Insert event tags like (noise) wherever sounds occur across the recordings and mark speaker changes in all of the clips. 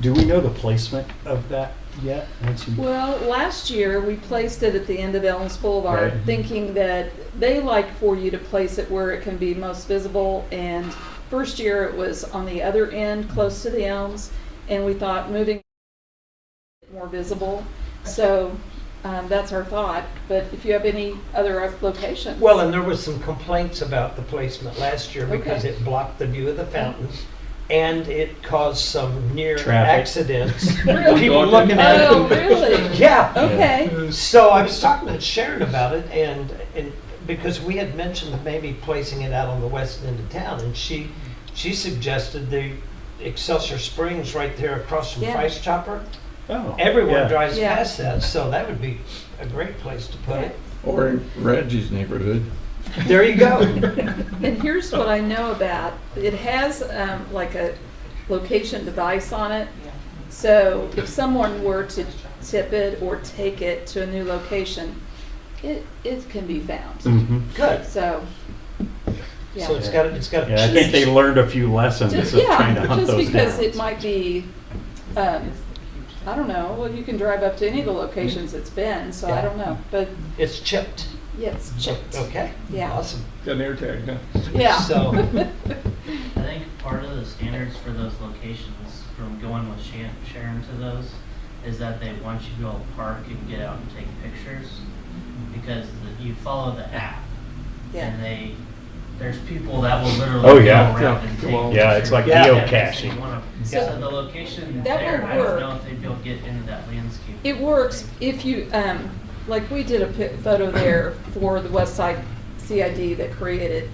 Speaker 1: Do we know the placement of that yet? Once you-
Speaker 2: Well, last year, we placed it at the end of Elms Boulevard,
Speaker 1: Right.
Speaker 2: thinking that they like for you to place it where it can be most visible. And first year, it was on the other end, close to the elms, and we thought moving more visible. So um, that's our thought, but if you have any other locations.
Speaker 3: Well, and there was some complaints about the placement last year because
Speaker 2: Okay.
Speaker 3: it blocked the view of the fountains and it caused some near
Speaker 1: Traffic. (laughs)
Speaker 3: accidents.
Speaker 2: Really?
Speaker 3: People looking at it.
Speaker 2: Oh, really?
Speaker 3: (laughs) Yeah.
Speaker 2: Okay,
Speaker 3: So I was talking to Sharon about it and, and because we had mentioned that maybe placing it out on the west end of town and she, she suggested the Excelsior Springs right there across from
Speaker 2: Yeah.
Speaker 3: Price Chopper.
Speaker 1: Oh,
Speaker 3: Everyone
Speaker 1: yeah.
Speaker 3: drives
Speaker 2: Yeah.
Speaker 3: past that, so that would be a great place to put it.
Speaker 4: Or in Reggie's neighborhood.
Speaker 3: There you go.
Speaker 2: (laughs) And here's what I know about, it has um, like a location device on it. So if someone were to tip it or take it to a new location, it, it can be found.
Speaker 1: Mhm.
Speaker 3: Good.
Speaker 2: So,
Speaker 3: So
Speaker 2: yeah.
Speaker 3: it's got, it's got.
Speaker 1: Yeah, I think they learned a few lessons of
Speaker 2: Just,
Speaker 1: trying to
Speaker 2: yeah,
Speaker 1: hunt
Speaker 2: just
Speaker 1: those
Speaker 2: because
Speaker 1: down.
Speaker 2: it might be, um, I don't know, well, you can drive up to any of the locations it's been, so I
Speaker 3: Yeah.
Speaker 2: don't know. But
Speaker 3: It's chipped.
Speaker 2: yes, checked, (laughs)
Speaker 3: Okay.
Speaker 2: Yeah.
Speaker 3: Awesome.
Speaker 4: Got an air tag, huh?
Speaker 2: yeah. (laughs)
Speaker 3: So-
Speaker 5: I think part of the standards for those locations, from going with Shan- Sharon to those, is that they want you to go park and get out and take pictures, because the- you follow the app,
Speaker 2: Yeah.
Speaker 5: and they, there's people that will literally
Speaker 1: Oh,
Speaker 5: go
Speaker 1: yeah.
Speaker 5: around and
Speaker 4: Yeah.
Speaker 5: take.
Speaker 4: Well-
Speaker 1: Yeah, it's like
Speaker 5: pictures of
Speaker 1: geocaching.
Speaker 5: everything you wanna-
Speaker 2: So
Speaker 5: So the location
Speaker 2: that
Speaker 5: there,
Speaker 2: will
Speaker 5: I don't
Speaker 2: work.
Speaker 5: know if they'd be able to get into that landscape.
Speaker 2: It works if you, um, like we did a pi- photo there for the West Side CID that created.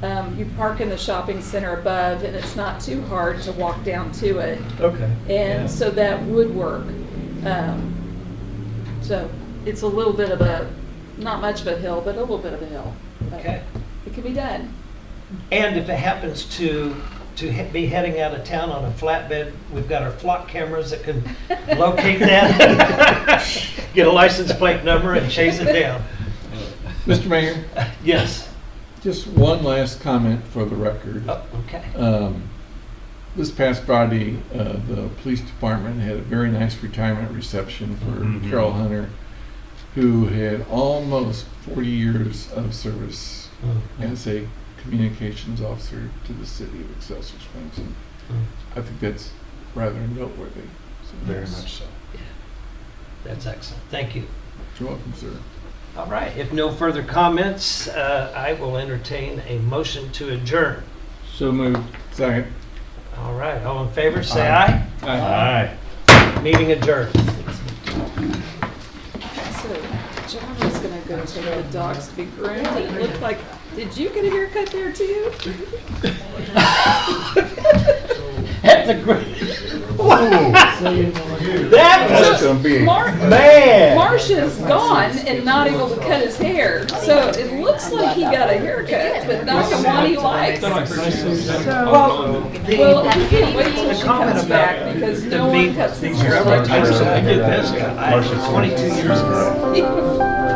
Speaker 2: Um, you park in the shopping center above and it's not too hard to walk down to it.
Speaker 3: Okay. Yeah.
Speaker 2: And so that would work. Um, so it's a little bit of a, not much of a hill, but a little bit of a hill. But
Speaker 3: Okay.
Speaker 2: It can be done.
Speaker 3: And if it happens to, to he- be heading out of town on a flatbed, we've got our flock cameras that can
Speaker 2: (laughs)
Speaker 3: locate that. (laughs) Get a license plate number and chase it down.
Speaker 4: Mr. Mayor,
Speaker 3: Yes.
Speaker 4: just one last comment for the record.
Speaker 3: Oh, okay.
Speaker 1: Uh,
Speaker 4: Um, This past Friday, uh, the police department had a very nice retirement reception for
Speaker 1: Mhm.
Speaker 4: Carol Hunter, who had almost 40 years of service
Speaker 3: Mm-hmm.
Speaker 4: as a communications officer to the city of Excelsior Springs. And I think that's rather noteworthy. So-
Speaker 1: Very much so.
Speaker 3: That's excellent. Thank you.
Speaker 4: You're welcome, sir.
Speaker 3: All right. If no further comments, uh, I will entertain a motion to adjourn.
Speaker 4: So moved. Second.
Speaker 3: All right. All in favor, say aye.
Speaker 2: (laughs)
Speaker 1: Aye.
Speaker 3: Meeting adjourned.
Speaker 2: So John was gonna go take the dogs to be groomed. It looked like, did you get a haircut there too?
Speaker 3: At the That
Speaker 4: That's gonna be.
Speaker 2: Mark,
Speaker 3: man.
Speaker 2: Marsh is gone and not able to cut his hair, so it looks like he got a haircut, but not the one he likes.
Speaker 3: Well,
Speaker 2: Well,
Speaker 3: the,
Speaker 2: he can't wait till she comes back because
Speaker 3: the
Speaker 2: no one
Speaker 3: meat,
Speaker 2: cuts
Speaker 3: these
Speaker 2: his (laughs)
Speaker 3: railroad
Speaker 2: hair.
Speaker 3: ties, I did this, I,
Speaker 1: Marcia's-
Speaker 3: twenty-two years ago.